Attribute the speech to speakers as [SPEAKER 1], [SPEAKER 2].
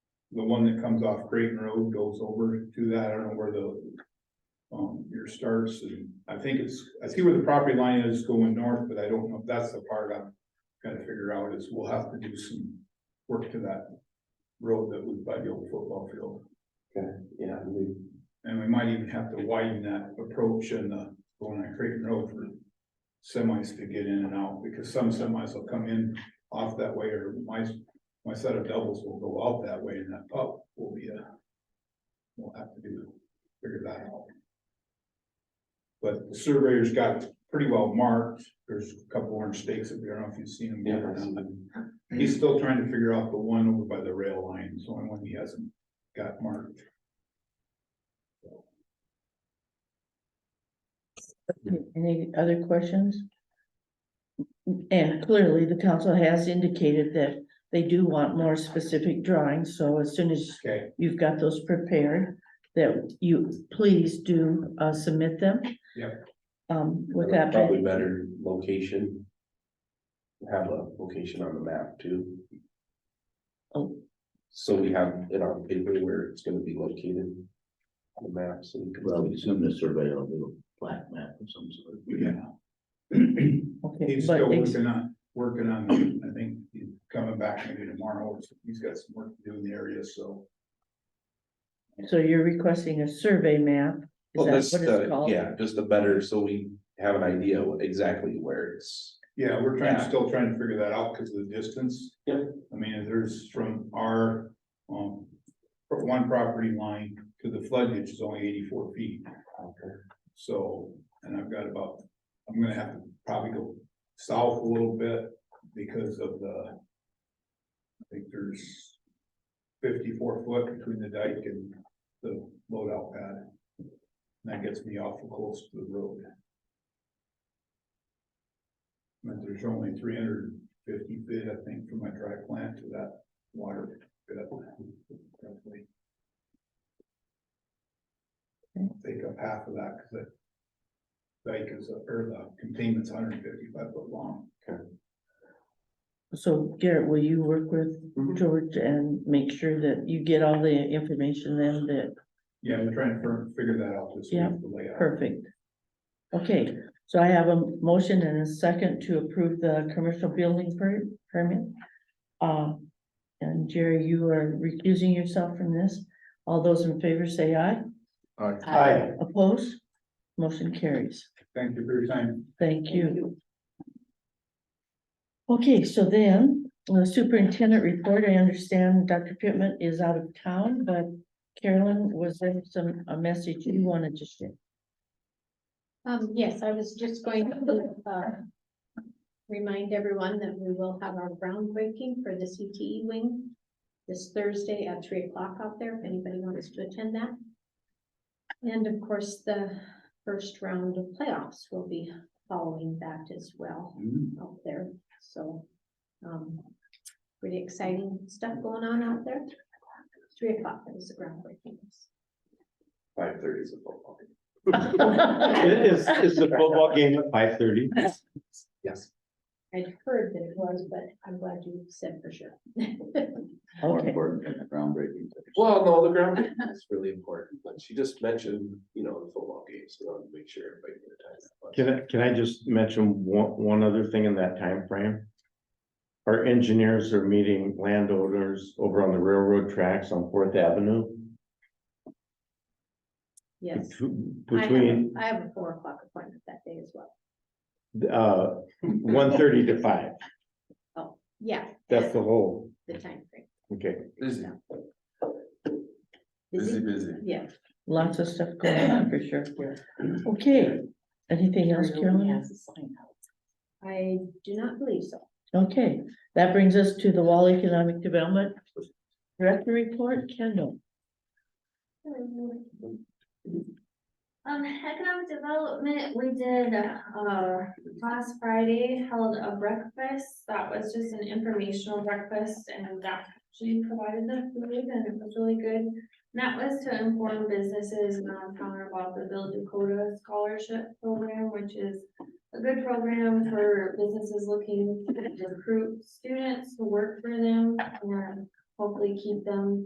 [SPEAKER 1] the one that comes off Creighton Road goes over to that, I don't know where the. Um, your starts, and I think it's, I see where the property line is going north, but I don't know if that's the part I'm gotta figure out, is we'll have to do some work to that. Road that was by the old football field,
[SPEAKER 2] yeah, we,
[SPEAKER 1] and we might even have to widen that approach and the, going on Creighton Road for. Semis to get in and out, because some semis will come in off that way, or my, my set of doubles will go out that way, and that pup will be a. We'll have to do, figure that out. But the surveyor's got it pretty well marked, there's a couple orange stakes up there, I don't know if you've seen them.
[SPEAKER 2] yeah,
[SPEAKER 1] before or not.
[SPEAKER 2] that's-
[SPEAKER 1] He's still trying to figure out the one over by the rail line, so I one he hasn't got marked.
[SPEAKER 3] Any other questions? And clearly, the council has indicated that they do want more specific drawings, so as soon as
[SPEAKER 1] Okay,
[SPEAKER 3] you've got those prepared, that you please do uh, submit them.
[SPEAKER 1] Yep.
[SPEAKER 3] Um, with that, being-
[SPEAKER 2] Probably better location. Have a location on the map too.
[SPEAKER 3] Oh.
[SPEAKER 2] So we have it on paper where it's gonna be located. On the map, so we can.
[SPEAKER 4] Well, we assume the surveyor will do a flat map of some sort.
[SPEAKER 1] yeah,
[SPEAKER 3] okay,
[SPEAKER 1] he's still
[SPEAKER 3] but ex-
[SPEAKER 1] working on, working on, I think he's coming back maybe tomorrow, he's got some work to do in the area, so.
[SPEAKER 3] so you're requesting a survey map? Is
[SPEAKER 2] Well,
[SPEAKER 3] that
[SPEAKER 2] that's
[SPEAKER 3] what it's
[SPEAKER 2] the,
[SPEAKER 3] called?
[SPEAKER 2] yeah, just the better, so we have an idea what- exactly where it's.
[SPEAKER 1] Yeah, we're trying,
[SPEAKER 2] Yeah.
[SPEAKER 1] still trying to figure that out because of the distance.
[SPEAKER 2] Yep.
[SPEAKER 1] I mean, there's from our, um, from one property line to the flood ditch is only eighty-four feet. So, and I've got about, I'm gonna have to probably go south a little bit because of the. I think there's fifty-four foot between the dike and the loadout pad. And that gets me awful close to the road. And there's only three hundred and fifty feet, I think, from my dry plant to that water pit. roughly. Take up half of that, cause that dike is, or the containment's hundred and fifty-five foot long.
[SPEAKER 3] So Garrett, will you work with
[SPEAKER 2] Mhm.
[SPEAKER 3] George and make sure that you get all the information then that
[SPEAKER 1] Yeah, I'm trying to fir- figure that out this
[SPEAKER 3] Yeah,
[SPEAKER 1] week, the layout.
[SPEAKER 3] Perfect. Okay, so I have a motion and a second to approve the commercial building per- permit. Um, and Jerry, you are recusing yourself from this. All those in favor say aye.
[SPEAKER 1] Hi,
[SPEAKER 3] Opposed? Motion carries.
[SPEAKER 1] thank you for your time.
[SPEAKER 3] Thank you. Okay, so then, the superintendent report, I understand Dr. Pittman is out of town, but Carolyn, was there some, a message you wanted to share?
[SPEAKER 5] Um, yes, I was just going to, uh, remind everyone that we will have our groundbreaking for the CTE wing this Thursday at three o'clock out there, if anybody wants to attend that. And of course, the first round of playoffs will be following that as well out there, so, um, pretty exciting stuff going on out there. Three o'clock is the groundbreaking.
[SPEAKER 2] Five thirty is a football. game.
[SPEAKER 6] Is, is the football game at five thirty?
[SPEAKER 2] Yes.
[SPEAKER 5] I'd heard that it was, but I'm glad you said for sure.
[SPEAKER 4] More
[SPEAKER 3] Okay.
[SPEAKER 4] important than the groundbreaking.
[SPEAKER 2] Well, no, the ground is really important, but she just mentioned, you know, the football game, so I want to make sure everybody knew the time. that was.
[SPEAKER 6] Can I, can I just mention one, one other thing in that time frame? Our engineers are meeting landowners over on the railroad tracks on Fourth Avenue.
[SPEAKER 5] Yes.
[SPEAKER 6] betw-
[SPEAKER 5] I have a-
[SPEAKER 6] Between,
[SPEAKER 5] I have a four o'clock appointment that day as well.
[SPEAKER 6] uh, one thirty to five,
[SPEAKER 5] Yeah.
[SPEAKER 6] that's the whole,
[SPEAKER 5] The timeframe.
[SPEAKER 6] okay.
[SPEAKER 2] Busy,
[SPEAKER 5] Busy?
[SPEAKER 2] busy.
[SPEAKER 5] Yeah.
[SPEAKER 3] Lots of stuff going on for sure. Okay, anything else, Carolyn?
[SPEAKER 5] I do not believe so.
[SPEAKER 3] Okay, that brings us to the Wall Economic Development Director Report, Kendall.
[SPEAKER 7] Um, economic development, we did, uh, last Friday held a breakfast, that was just an informational breakfast, and that actually provided the food, and it was really good. And that was to inform businesses in our town about the Bill Dakota Scholarship Program, which is a good program for businesses looking to recruit students to work for them, and hopefully keep them